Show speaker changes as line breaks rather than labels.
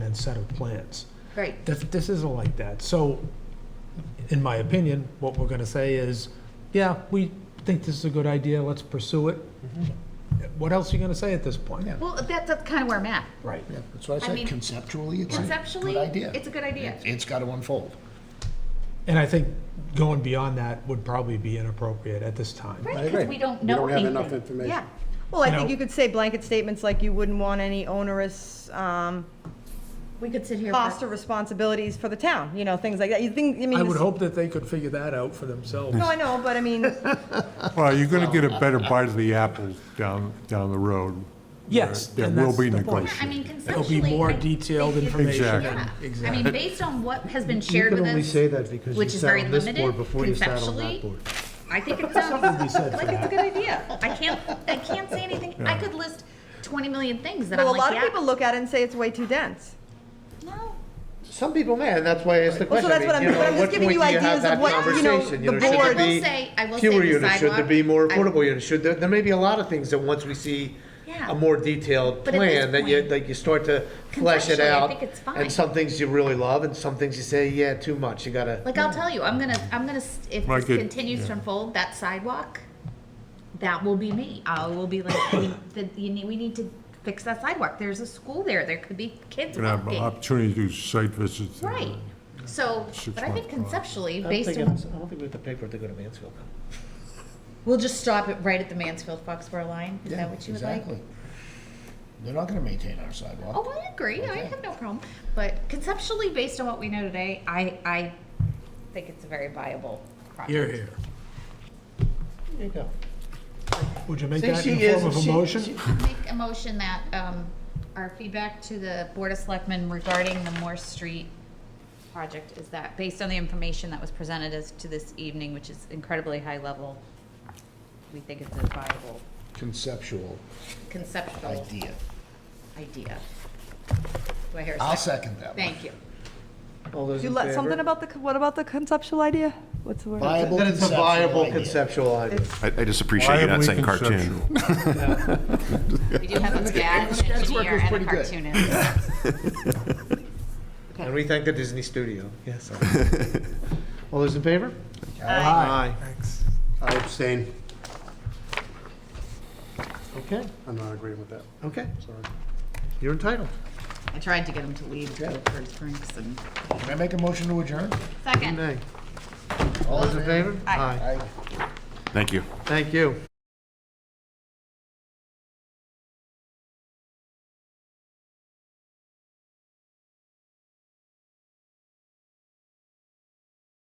and set of plans.
Right.
This, this isn't like that. So, in my opinion, what we're gonna say is, yeah, we think this is a good idea, let's pursue it. What else are you gonna say at this point?
Yeah.
Well, that, that's kind of where I'm at.
Right.
Yeah, that's what I
I
said,
mean,
conceptually, it's a
Conceptually,
good idea.
it's a good idea.
It- It's got to unfold.
And I think going beyond that would probably be inappropriate at this time.
Right,
I
because
agree.
we don't
We
know
don't have enough
anything.
information.
Yeah.
Well, I
You know-
think you could say blanket statements like you wouldn't want any onerous um,
We could sit here.
cost
for
or responsibilities for the town, you know, things like that. You think, I mean.
I would
this-
hope that they could figure that out for themselves.
No, I know, but I mean,
Well, you're going to get a better bite of the apple down, down the road.
Yes,
There
and
will
that's
be
the point.
I mean,
negotiation.
It'll
conceptually.
be more
I-
detailed
it- it-
information.
Exactly.
Yeah. I
Exactly.
mean, based on what has been
You
shared
can
with
only say
us,
that because you
which is
sat
very
on this board
limited
before you sat on that
conceptually.
board.
I think it sounds,
said
like
for
it's a good idea. I can't, I can't say anything. I could list twenty million things that I'm
well, a
like,
lot of people
yeah.
look at it and say it's way too dense.
No,
Some people may, and that's why I asked the
Well, so that's
question. I
what I'm-
mean, you
but
know,
I'm
at
just
what
giving
point
you
do have
ideas of
that
what, you know,
conversation? You
the
should there
board- I will
be
say- I will
Fewer
say the
units, should there
sidewalk-
be more
I-
affordable units, should, there, there may be a lot of things that once we see
Yeah.
a more detailed
But at this
plan, that you,
point,
that you start to flesh it
conceptually, I
out.
think it's fine.
And some things you really love, and some things you say, yeah, too much, you gotta.
like I'll tell you, I'm gonna, I'm gonna, s- if
Well, I
this
could-
continues to
yeah.
unfold, that sidewalk, that will be me. I will be like, we, that you need, we need to fix that sidewalk. There's a school there. There could be kids
We're going to have an
walking.
opportunity to do site visits.
Right. So,
Six
but I think
month plan.
conceptually,
I don't
based
think
on,
it's- I don't think we have the paper to go to Mansfield.
we'll just stop it right at the Mansfield-Foxborough line. Is that what you would like?
Exactly. They're not going to maintain our sidewalk.
Oh, I agree. I have no problem. But conceptually, based on what we know today, I, I think it's a very viable
Here,
project.
here.
There you go.
Would you make
See,
that
she
in the
is-
form of a
she-
motion?
she-
Make a motion that, um, our feedback to the Board of Selectmen regarding the Moore Street project is that, based on the information that was presented as to this evening, which is incredibly high level, we think it's a viable
Conceptual
conceptual
idea.
idea. Do I hear a
I'll
second?
second that one.
Thank you.
All those
You
in
let, something
favor?
about the, what about the conceptual idea? What's the word?
Viable
That it's a
conceptual
viable
idea.
conceptual idea.
I, I just appreciate you not
Viably
saying cartoon.
conceptual.
We do have a SCAD, an
SCAD's work
engineer,
was
and a
pretty good.
cartoonist.
And we thank the Disney studio, yes. All those in favor? Aye.
Thanks.
Aye. Aye.
Abstain.
Okay,
I'm not agreeing with that.
okay. You're entitled.
I tried to get him to leave to go for drinks and.
Can I make a motion to adjourn?
Second.
Nay. All those in favor?
Aye.
Thank you.
Thank you.